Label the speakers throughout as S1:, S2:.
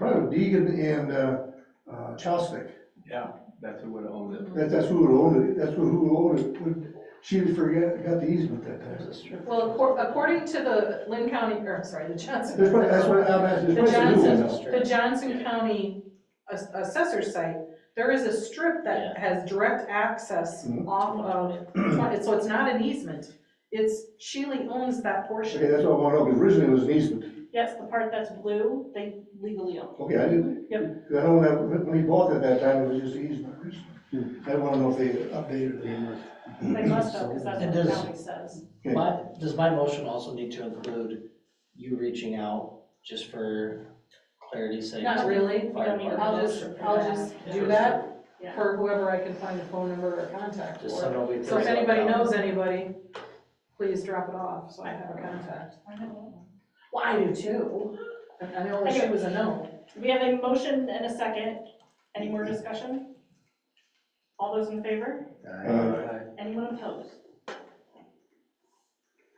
S1: probably Deegan and, uh, uh, Chosnick.
S2: Yeah, that's who would own it.
S1: That, that's who would own it, that's who, who owned it, would, she forget, got the easement that time.
S3: Well, accor- according to the Lynn County, or I'm sorry, the Johnson.
S1: That's what, that's what I'm asking,
S3: The
S1: there's probably some new one
S3: Johnson, the Johnson County ass- assessor site, there is a strip that has direct access
S1: Mhm.
S3: off of, twenty- so it's not an easement. It's, Shealy owns that
S1: Okay,
S3: portion.
S1: that's what I want to know, because originally it was an easement,
S4: Yes, the part that's blue, they legally own.
S1: okay, I didn't.
S4: Yep.
S1: 'Cause I know that, when when we bought it that time, it was just an easement,
S5: Hmm.
S1: I want to know if they updated it.
S4: They must have, because that's
S6: It
S4: what the
S6: does.
S4: county says.
S1: Okay.
S6: My, does my motion also need to include you reaching out just for clarity's sake?
S3: Not really.
S6: Fire
S3: I'll
S6: department?
S3: just, I'll just do that for whoever I can find a phone number or contact
S6: Just
S3: for.
S6: someone we.
S3: So if anybody knows anybody, please drop it off, so I have a contact. Well, I do too. I- I know she was a no.
S4: We have a motion and a second. Any more discussion? All those in favor?
S1: Uh,
S4: Anyone opposed? All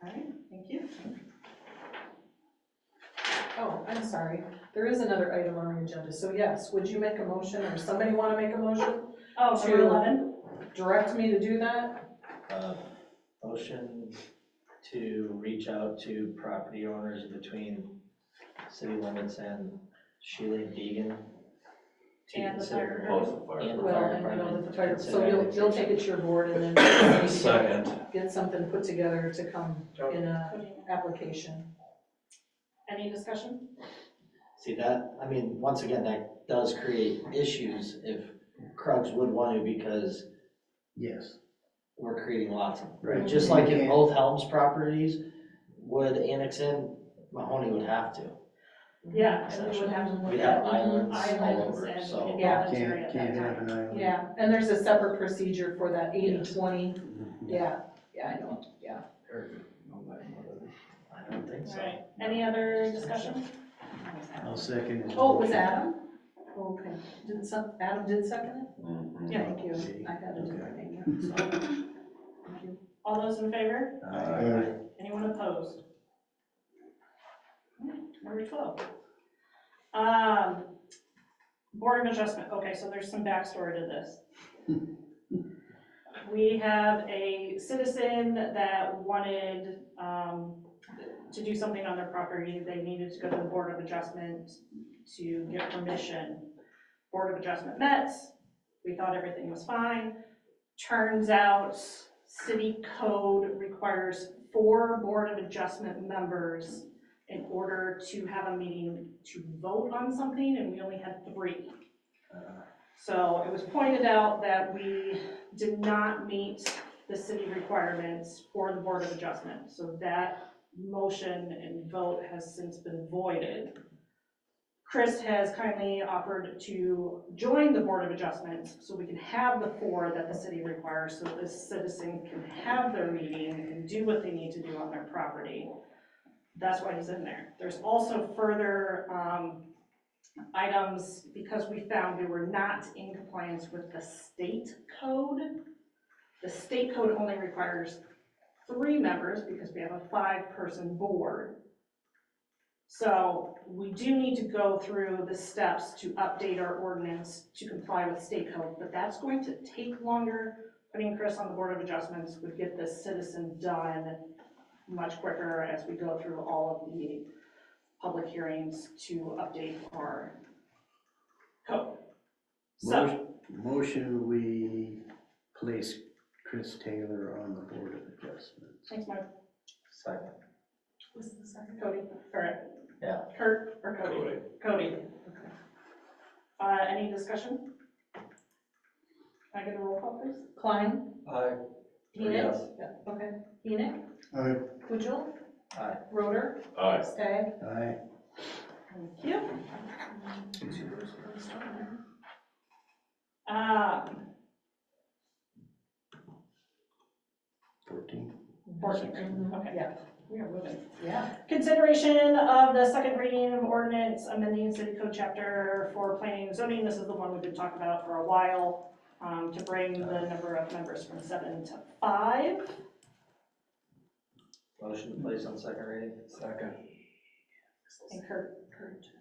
S4: right, thank you.
S3: Oh, I'm sorry. There is another item on the agenda. So yes, would you make a motion or somebody want to make a motion?
S4: Oh, number
S3: Two.
S4: 11,
S3: Direct me to do that?
S6: Uh, Motion to reach out to property owners between city limits and Sheila Deegan. to
S4: And the fire
S6: consider-
S4: department.
S6: And the
S3: Well,
S6: fire
S3: and you know,
S6: department.
S3: with the fire, so
S6: consider
S3: you'll, you'll take it to your board and then we can
S7: Second.
S3: get something put together to come in a application.
S4: Any discussion?
S6: See that, I mean, once again, that does create issues if Krugs would want to because
S5: Yes.
S6: we're creating lots of,
S5: Right.
S6: just like if
S5: Yeah.
S6: both Helms properties would annex in, Mahoney would have to.
S4: Yeah, and we would have to look
S6: We'd
S4: at
S6: have islands all
S4: mm-hmm. islands
S6: over,
S4: and
S6: so.
S4: involuntary
S5: Can't,
S4: at that
S5: can't
S4: time.
S5: have an island.
S3: Yeah, and there's a separate procedure for that eighty, twenty.
S5: Mhm.
S3: Yeah, yeah, I know, yeah.
S6: I don't think
S4: All
S6: so.
S4: right, any other discussion?
S5: I'll second it.
S3: Oh, it was Adam? Okay, did some, Adam did second
S6: Mm-hmm.
S3: it?
S4: Yeah.
S3: Thank you, I had it in my name, so. Thank you.
S4: All those in favor?
S1: uh,
S4: Anyone opposed? Number twelve. Um, Board of Adjustment, okay, so there's some backstory to this. We have a citizen that wanted, um, to do something on their property. They needed to go to the Board of Adjustment to get permission. Board of Adjustment met, we thought everything was fine. Turns out, city code requires four Board of Adjustment members in order to have a meeting to vote on something, and we only had three. So it was pointed out that we did not meet the city requirements for the Board of Adjustment. So that motion and vote has since been voided. Chris has kindly offered to join the Board of Adjustment so we can have the four that the city requires, so that the citizen can have their meeting and do what they need to do on their property. That's why he's in there. There's also further um, items, because we found we were not in compliance with the state code. The state code only requires three members because we have a five-person board. So we do need to go through the steps to update our ordinance to comply with state code, but that's going to take longer. Putting Chris on the Board of Adjustments would get this citizen done much quicker as we go through all of the public hearings to update our code. So,
S5: Motion- Motion, we place Chris Taylor on the Board of Adjustments.
S4: thanks, Mike,
S6: Second.
S3: Was the second?
S4: Cody, or.
S6: Yeah.
S4: Kurt or Cody? Cody. Uh, any discussion? Can I get a roll call, please?
S3: Klein,
S2: Aye.
S3: Enoch, okay, Enoch,
S1: I-
S3: Pujol.
S6: Aye.
S3: Roder,
S7: Aye.
S3: Stag.
S5: Aye.
S4: Thank you. Um,
S5: Fourteen.
S4: Fourteen, okay.
S3: Yeah,
S4: We are moving.
S3: Mm-hmm. yeah.
S4: Consideration of the second reading of ordinance amending city code chapter for planning and zoning. This is the one we've been talking about for a while, um, to bring the number of members from seven to five.
S6: Motion to place on second reading?
S2: Second.
S4: And Kurt, Kurt